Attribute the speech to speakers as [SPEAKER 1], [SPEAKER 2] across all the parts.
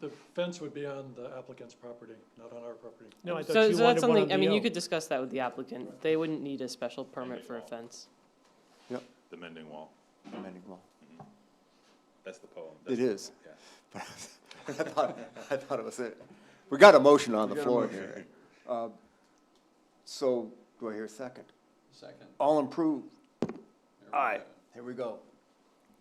[SPEAKER 1] The fence would be on the applicant's property, not on our property.
[SPEAKER 2] No, I
[SPEAKER 3] So,
[SPEAKER 2] thought you
[SPEAKER 3] so that's
[SPEAKER 2] wanted one on
[SPEAKER 3] something,
[SPEAKER 2] the
[SPEAKER 3] I mean, you
[SPEAKER 2] O.
[SPEAKER 3] could discuss that with the applicant. They wouldn't need a special permit for a fence.
[SPEAKER 4] The mending wall,
[SPEAKER 5] amending law.
[SPEAKER 4] that's the poem.
[SPEAKER 5] It
[SPEAKER 4] That's-
[SPEAKER 5] is.
[SPEAKER 4] yeah.
[SPEAKER 5] I thought, I thought it was it. We got a motion on the floor here. Uh, So, do I hear a second?
[SPEAKER 6] Second.
[SPEAKER 5] All improved.
[SPEAKER 6] There we
[SPEAKER 5] Aye.
[SPEAKER 6] go.
[SPEAKER 5] Here we go.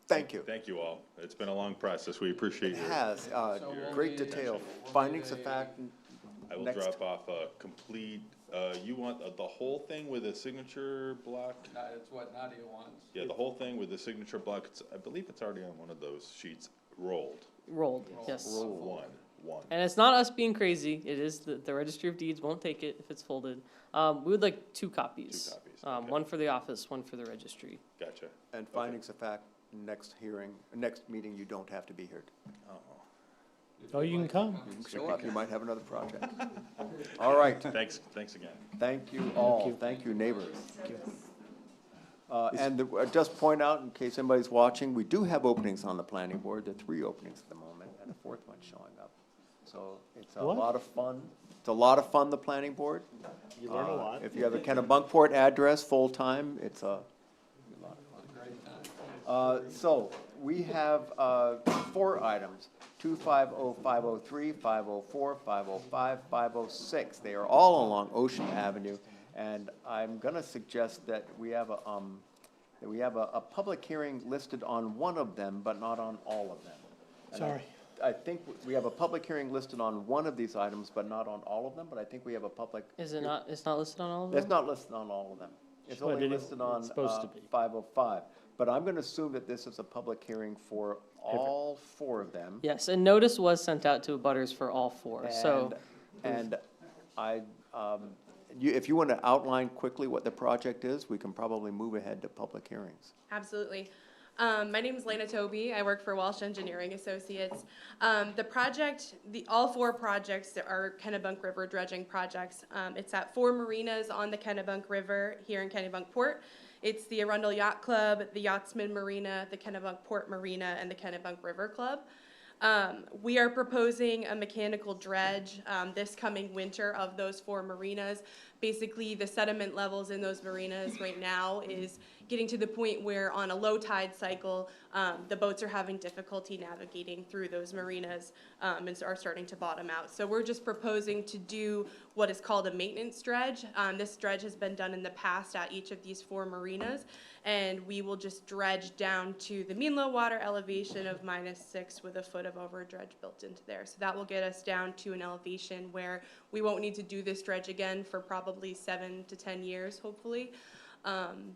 [SPEAKER 5] Thank you.
[SPEAKER 4] Thank you all. It's been a long process. We appreciate
[SPEAKER 5] It
[SPEAKER 4] your,
[SPEAKER 5] has, uh,
[SPEAKER 6] So we'll
[SPEAKER 5] great
[SPEAKER 6] need-
[SPEAKER 5] detail,
[SPEAKER 6] we'll
[SPEAKER 5] findings
[SPEAKER 6] need
[SPEAKER 5] of
[SPEAKER 6] a-
[SPEAKER 5] fact.
[SPEAKER 4] I will
[SPEAKER 5] next.
[SPEAKER 4] drop off a complete, uh, you want the- the whole thing with a signature block?
[SPEAKER 6] Na- It's what Nadia wants.
[SPEAKER 4] Yeah, the whole thing with the signature block, it's, I believe it's already on one of those sheets, rolled,
[SPEAKER 3] Rolled, yes.
[SPEAKER 5] Rolled.
[SPEAKER 4] one, one.
[SPEAKER 3] And it's not us being crazy. It is the, the registry of deeds won't take it if it's folded. Um, we would like two copies.
[SPEAKER 4] Two copies,
[SPEAKER 3] Um,
[SPEAKER 4] okay.
[SPEAKER 3] one for the office, one for the registry.
[SPEAKER 4] Gotcha.
[SPEAKER 5] And findings of fact, next hearing, next meeting, you don't have to be here.
[SPEAKER 2] Oh, you can come.
[SPEAKER 5] You can show up, you might have another project. All right,
[SPEAKER 4] Thanks, thanks again.
[SPEAKER 5] Thank you all, thank you neighbors. Uh, and the- uh, just point out, in case anybody's watching, we do have openings on the planning board, there are three openings at the moment, and a fourth one showing up. So it's a
[SPEAKER 2] What?
[SPEAKER 5] lot of fun, it's a lot of fun, the planning board.
[SPEAKER 2] You learn a
[SPEAKER 5] Uh,
[SPEAKER 2] lot.
[SPEAKER 5] If you have a Kennebunkport address, full-time, it's a, uh, so, we have, uh, four items, two five oh five oh three, five oh four, five oh five, five oh six. They are all along Ocean Avenue, and I'm gonna suggest that we have a, um, that we have a, a public hearing listed on one of them, but not on all of them. And I-
[SPEAKER 2] Sorry.
[SPEAKER 5] I think we have a public hearing listed on one of these items, but not on all of them, but I think we have a public.
[SPEAKER 3] Is it not, it's not listed on all of them?
[SPEAKER 5] It's not listed on all of them. It's
[SPEAKER 2] But
[SPEAKER 5] only
[SPEAKER 2] it is-
[SPEAKER 5] listed on
[SPEAKER 2] it's supposed to be.
[SPEAKER 5] five oh five. But I'm gonna assume that this is a public hearing for all four of them.
[SPEAKER 3] Yes, and notice was sent out to abutters for all four, so.
[SPEAKER 5] And and I, um, you, if you wanna outline quickly what the project is, we can probably move ahead to public hearings.
[SPEAKER 7] Absolutely. Um, my name is Lena Toby. I work for Walsh Engineering Associates. Um, the project, the all four projects that are Kennebunk River dredging projects. Um, it's at four marinas on the Kennebunk River here in Kennebunk Port. It's the Arundel Yacht Club, the Yachtsman Marina, the Kennebunk Port Marina, and the Kennebunk River Club. Um, we are proposing a mechanical dredge, um, this coming winter of those four marinas. Basically, the sediment levels in those marinas right now is getting to the point where on a low tide cycle, um, the boats are having difficulty navigating through those marinas, um, and are starting to bottom out. So we're just proposing to do what is called a maintenance dredge. Um, this dredge has been done in the past at each of these four marinas, and we will just dredge down to the mean low water elevation of minus six with a foot of over dredge built into there. So that will get us down to an elevation where we won't need to do this dredge again for probably seven to ten years, hopefully. Um,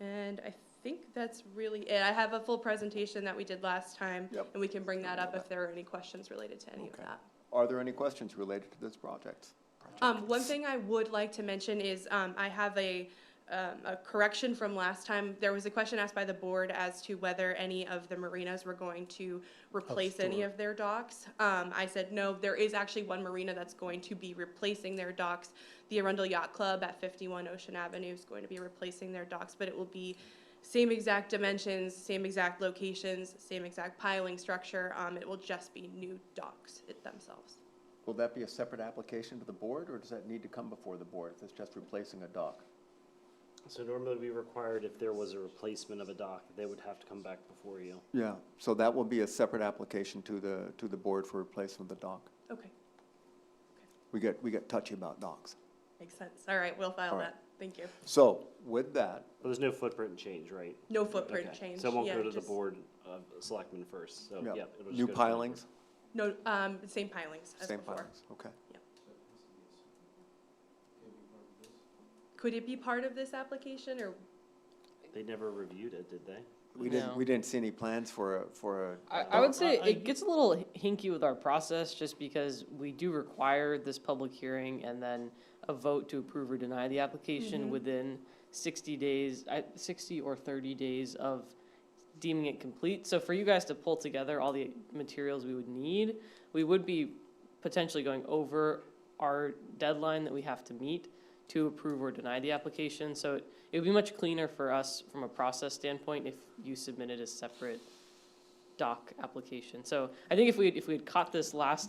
[SPEAKER 7] and I think that's really it. I have a full presentation that we did last time,
[SPEAKER 5] Yep.
[SPEAKER 7] and we can bring that up if there are any questions related to any of
[SPEAKER 5] Okay.
[SPEAKER 7] that.
[SPEAKER 5] Are there any questions related to this project?
[SPEAKER 7] Um, one thing I would like to mention is, um, I have a, um, a correction from last time. There was a question asked by the board as to whether any of the marinas were going to replace any of their docks. Um, I said, no, there is actually one marina that's going to be replacing their docks. The Arundel Yacht Club at fifty-one Ocean Avenue is going to be replacing their docks, but it will be same exact dimensions, same exact locations, same exact piling structure. Um, it will just be new docks it- themselves.
[SPEAKER 5] Will that be a separate application to the board, or does that need to come before the board if it's just replacing a dock?
[SPEAKER 8] So normally it'd be required if there was a replacement of a dock, they would have to come back before you.
[SPEAKER 5] Yeah, so that will be a separate application to the, to the board for replacement of the dock.
[SPEAKER 7] Okay.
[SPEAKER 5] We get, we get touchy about docks.
[SPEAKER 7] Makes sense. All right, we'll file
[SPEAKER 5] All right.
[SPEAKER 7] that. Thank you.
[SPEAKER 5] So with that,
[SPEAKER 8] But there's no footprint change, right?
[SPEAKER 7] No footprint
[SPEAKER 8] Okay.
[SPEAKER 7] change.
[SPEAKER 8] So it won't
[SPEAKER 7] Yeah,
[SPEAKER 8] go to the
[SPEAKER 7] just-
[SPEAKER 8] board of selectmen first, so,
[SPEAKER 5] yeah,
[SPEAKER 8] Oh, yeah. it'll just
[SPEAKER 5] new
[SPEAKER 8] go to the board.
[SPEAKER 5] pilings,
[SPEAKER 7] No, um, same pilings as
[SPEAKER 5] same
[SPEAKER 7] before.
[SPEAKER 5] pilings, okay.
[SPEAKER 7] Could it be part of this application or?
[SPEAKER 8] They never reviewed it, did they?
[SPEAKER 5] We didn't,
[SPEAKER 3] No.
[SPEAKER 5] we didn't see any plans for a, for a.
[SPEAKER 3] I,
[SPEAKER 5] a
[SPEAKER 3] I would
[SPEAKER 5] dock.
[SPEAKER 3] say
[SPEAKER 2] I-
[SPEAKER 3] it gets a little hinky with our process, just because we do require this public hearing and then a vote to approve or deny the
[SPEAKER 2] Mm-hmm.
[SPEAKER 3] application within sixty days, I, sixty or thirty days of deeming it complete. So for you guys to pull together all the materials we would need, we would be potentially going over our deadline that we have to meet to approve or deny the application. So it- it would be much cleaner for us from a process standpoint if you submitted a separate dock application. So I think if we, if we had caught this last